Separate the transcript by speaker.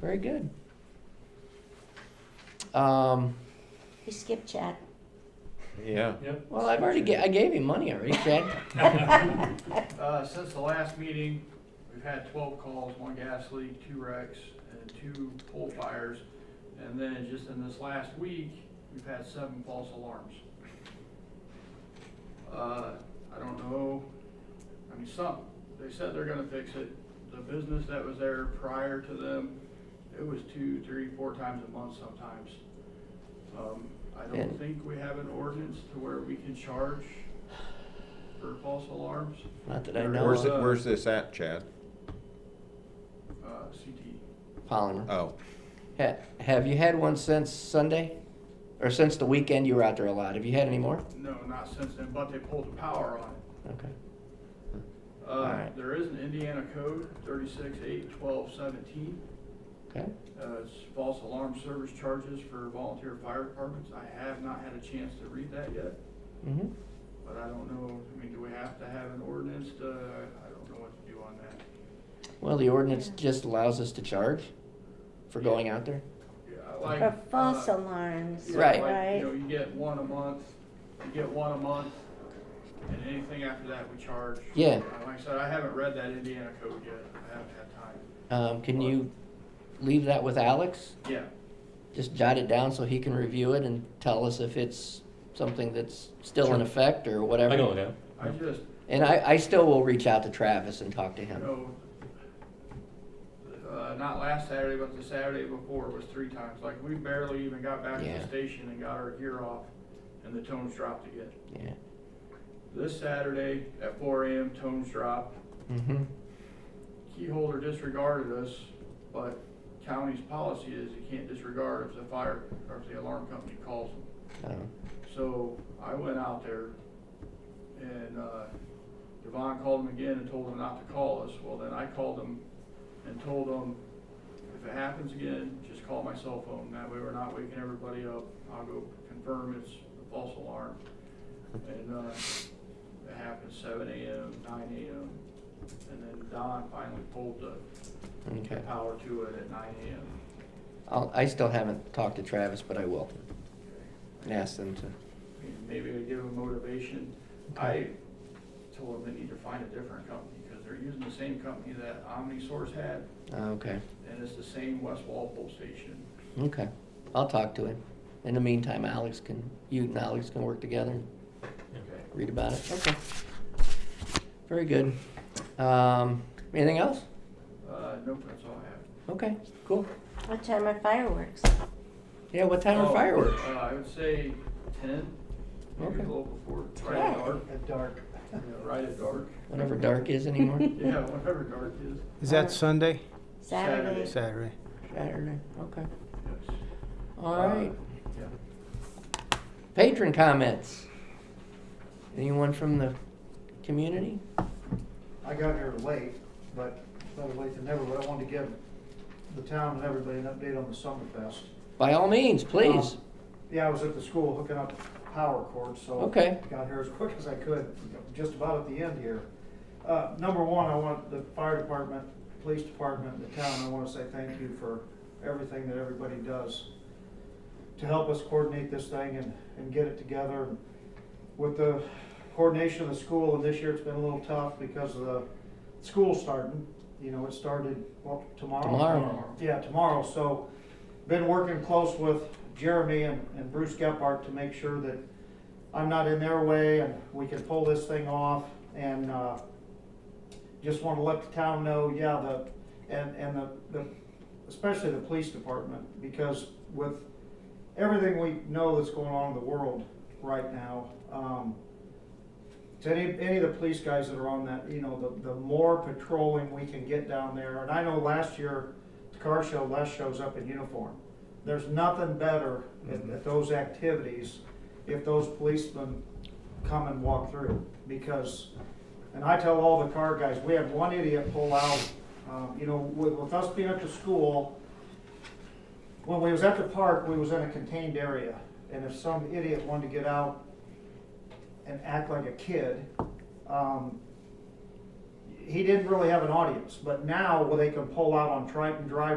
Speaker 1: Very good. Um,
Speaker 2: We skip chat.
Speaker 1: yeah.
Speaker 3: Yep.
Speaker 1: Well, I've already ga- I gave him money already, Chad.
Speaker 4: Uh, since the last meeting, we've had twelve calls, one gas leak, two wrecks, and two pole fires. And then just in this last week, we've had seven false alarms. Uh, I don't know, I mean, some, they said they're gonna fix it. The business that was there prior to them, it was two, three, four times a month sometimes. Um, I don't
Speaker 1: And-
Speaker 4: think we have an ordinance to where we can charge for false alarms.
Speaker 1: Not that I know
Speaker 4: Where's
Speaker 1: of.
Speaker 5: Where's,
Speaker 4: it-
Speaker 5: thi- where's this at, Chad?
Speaker 4: Uh, CT.
Speaker 1: Polymer.
Speaker 5: Oh,
Speaker 1: Ha- have you had one since Sunday? Or since the weekend you were out there a lot? Have you had any more?
Speaker 4: No, not since then, but they pulled the power on it.
Speaker 1: Okay.
Speaker 4: Uh,
Speaker 1: Alright.
Speaker 4: there is an Indiana code, thirty-six eight twelve seventeen.
Speaker 1: Okay.
Speaker 4: Uh, it's false alarm service charges for volunteer fire departments. I have not had a chance to read that yet,
Speaker 1: Mm-hmm.
Speaker 4: but I don't know, I mean, do we have to have an ordinance to, I don't know what to do on that.
Speaker 1: Well, the ordinance
Speaker 2: Yeah.
Speaker 1: just allows us to charge for going out there.
Speaker 4: Yeah, I like,
Speaker 2: Or false
Speaker 4: uh,
Speaker 2: alarms,
Speaker 4: yeah,
Speaker 1: Right.
Speaker 4: like, You know,
Speaker 2: right?
Speaker 4: you get one a month, you get one a month, and anything after that we charge.
Speaker 1: Yeah.
Speaker 4: Uh, Like I said, I haven't read that Indiana code yet. I haven't had time.
Speaker 1: Um, can you leave that with Alex?
Speaker 4: Yeah,
Speaker 1: Just jot it down so he can review it and tell us if it's something that's still in effect or whatever.
Speaker 3: I know now.
Speaker 4: I just
Speaker 1: And I, I still will reach out to Travis and talk to
Speaker 4: you
Speaker 1: him.
Speaker 4: know, uh, not last Saturday, but the Saturday before was three times. Like we barely even got back to
Speaker 1: Yeah.
Speaker 4: the station and got our gear off, and the tones dropped again.
Speaker 1: Yeah.
Speaker 4: This Saturday at 4 a.m. tones dropped.
Speaker 1: Mm-hmm.
Speaker 4: Key holder disregarded us, but county's policy is you can't disregard if the fire or if the alarm company calls them.
Speaker 1: Um,
Speaker 4: So I went out there and, uh, Devon called them again and told them not to call us. Well, then I called them and told them, if it happens again, just call my cell phone. That way we're not waking everybody up. I'll go confirm it's a false alarm. And, uh, it happened seven AM, nine AM. And then Don finally pulled the the
Speaker 1: okay.
Speaker 4: power to it at nine AM.
Speaker 1: I'll, I still haven't talked to Travis, but I will and ask them to.
Speaker 4: and maybe I give them motivation. I told them they need to find a different company, because they're using the same company that OmniSource had,
Speaker 1: Ah, okay.
Speaker 4: and it's the same West Walpole station.
Speaker 1: Okay. I'll talk to him. In the meantime, Alex can, you and Alex can work together and
Speaker 4: Okay.
Speaker 1: read about it. Okay. Very good. Um, anything else?
Speaker 4: Uh, nope, that's all I have.
Speaker 1: Okay, cool.
Speaker 2: What time are fireworks?
Speaker 1: Yeah, what time are
Speaker 4: Oh,
Speaker 1: fireworks?
Speaker 4: Uh, I would say ten, maybe a
Speaker 1: Okay.
Speaker 4: little before, right at dark,
Speaker 6: At dark.
Speaker 4: you know, right at dark.
Speaker 1: Whatever dark is anymore.
Speaker 4: Yeah, whatever dark is,
Speaker 6: Is that Sunday?
Speaker 2: Saturday.
Speaker 6: Saturday.
Speaker 1: Saturday. Okay.
Speaker 4: yes.
Speaker 1: All
Speaker 4: Uh,
Speaker 1: right.
Speaker 4: yeah.
Speaker 1: Patron comments. Anyone from the community?
Speaker 6: I got here late, but better late than never, but I wanted to give the town and everybody an update on the Summerfest.
Speaker 1: By all means, please.
Speaker 6: Um, Yeah, I was at the school hooking up power cords, so.
Speaker 1: Okay.
Speaker 6: Got here as quick as I could, just about at the end here. Uh, number one, I want the fire department, police department, the town, I wanna say thank you for everything that everybody does to help us coordinate this thing and, and get it together. With the coordination of the school, and this year it's been a little tough because of the school starting, you know, it started, well,
Speaker 1: Tomorrow.
Speaker 6: yeah, tomorrow, so been working close with Jeremy and, and Bruce Gephardt to make sure that I'm not in their way and we can pull this thing off and, uh, just wanna let the town know, yeah, the, and, and the, the, especially the police department, because with everything we know that's going on in the world right now, um, to any, any of the police guys that are on that, you know, the, the more patrolling we can get down there, and I know last year, the car show, Les shows up in uniform. There's nothing better at, at those activities if those policemen come and walk through, because, and I tell all the car guys, we had one idiot pull out, um, you know, with, with us being at the school, when we was at the park, we was in a contained area, and if some idiot wanted to get out, and act like a kid. Um, he didn't really have an audience, but now well, they can pull out on Triton Drive